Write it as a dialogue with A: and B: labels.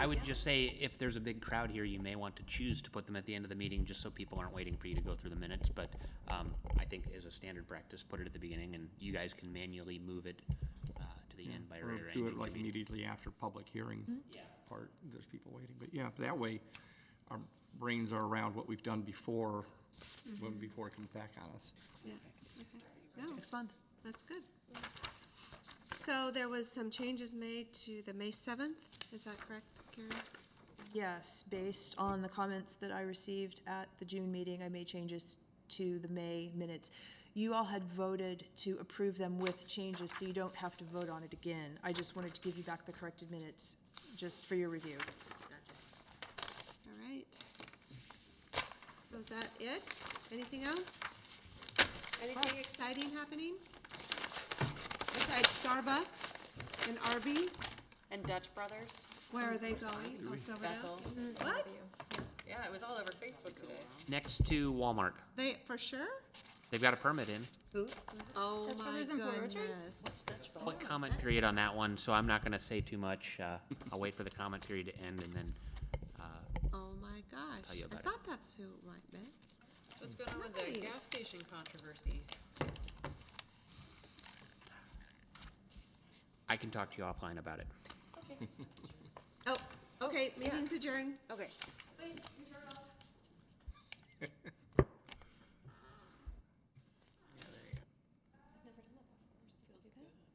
A: I would just say, if there's a big crowd here, you may want to choose to put them at the end of the meeting, just so people aren't waiting for you to go through the minutes, but, um, I think as a standard practice, put it at the beginning, and you guys can manually move it, uh, to the end by
B: Or
A: rearranging
B: do
A: the
B: it like
A: meeting.
B: immediately after public hearing
A: Yeah.
B: part, there's people waiting, but yeah, that way our brains are around what we've done before, when before it comes back on us.
C: Yeah, okay. No,
D: next month.
C: that's good. So there was some changes made to the May 7th, is that correct, Karen?
D: Yes, based on the comments that I received at the June meeting, I made changes to the May minutes. You all had voted to approve them with changes, so you don't have to vote on it again. I just wanted to give you back the corrected minutes, just for your review.
C: All right. So is that it? Anything else? Anything
D: Yes.
C: exciting happening? Besides Starbucks and Arby's,
E: And Dutch Brothers?
C: where are they going? Oh, Silverdale?
E: Bethel.
C: What?
E: Yeah, it was all over Facebook today.
A: Next to Walmart,
C: They, for sure?
A: they've got a permit in.
C: Oh, my
F: Brothers in Blue Ridge?
C: goodness.
A: Public
B: Oh,
A: comment period on that one, so I'm not gonna say too much, uh, I'll wait for the comment period to end, and then, uh,
C: Oh, my gosh.
A: you
C: I
A: about it.
C: thought that's who it might be.
E: That's what's going on with the
C: Nice.
E: gas station controversy.
A: I can talk to you offline about it.
C: Oh, okay, meeting's adjourned.
E: Okay.
C: Wait,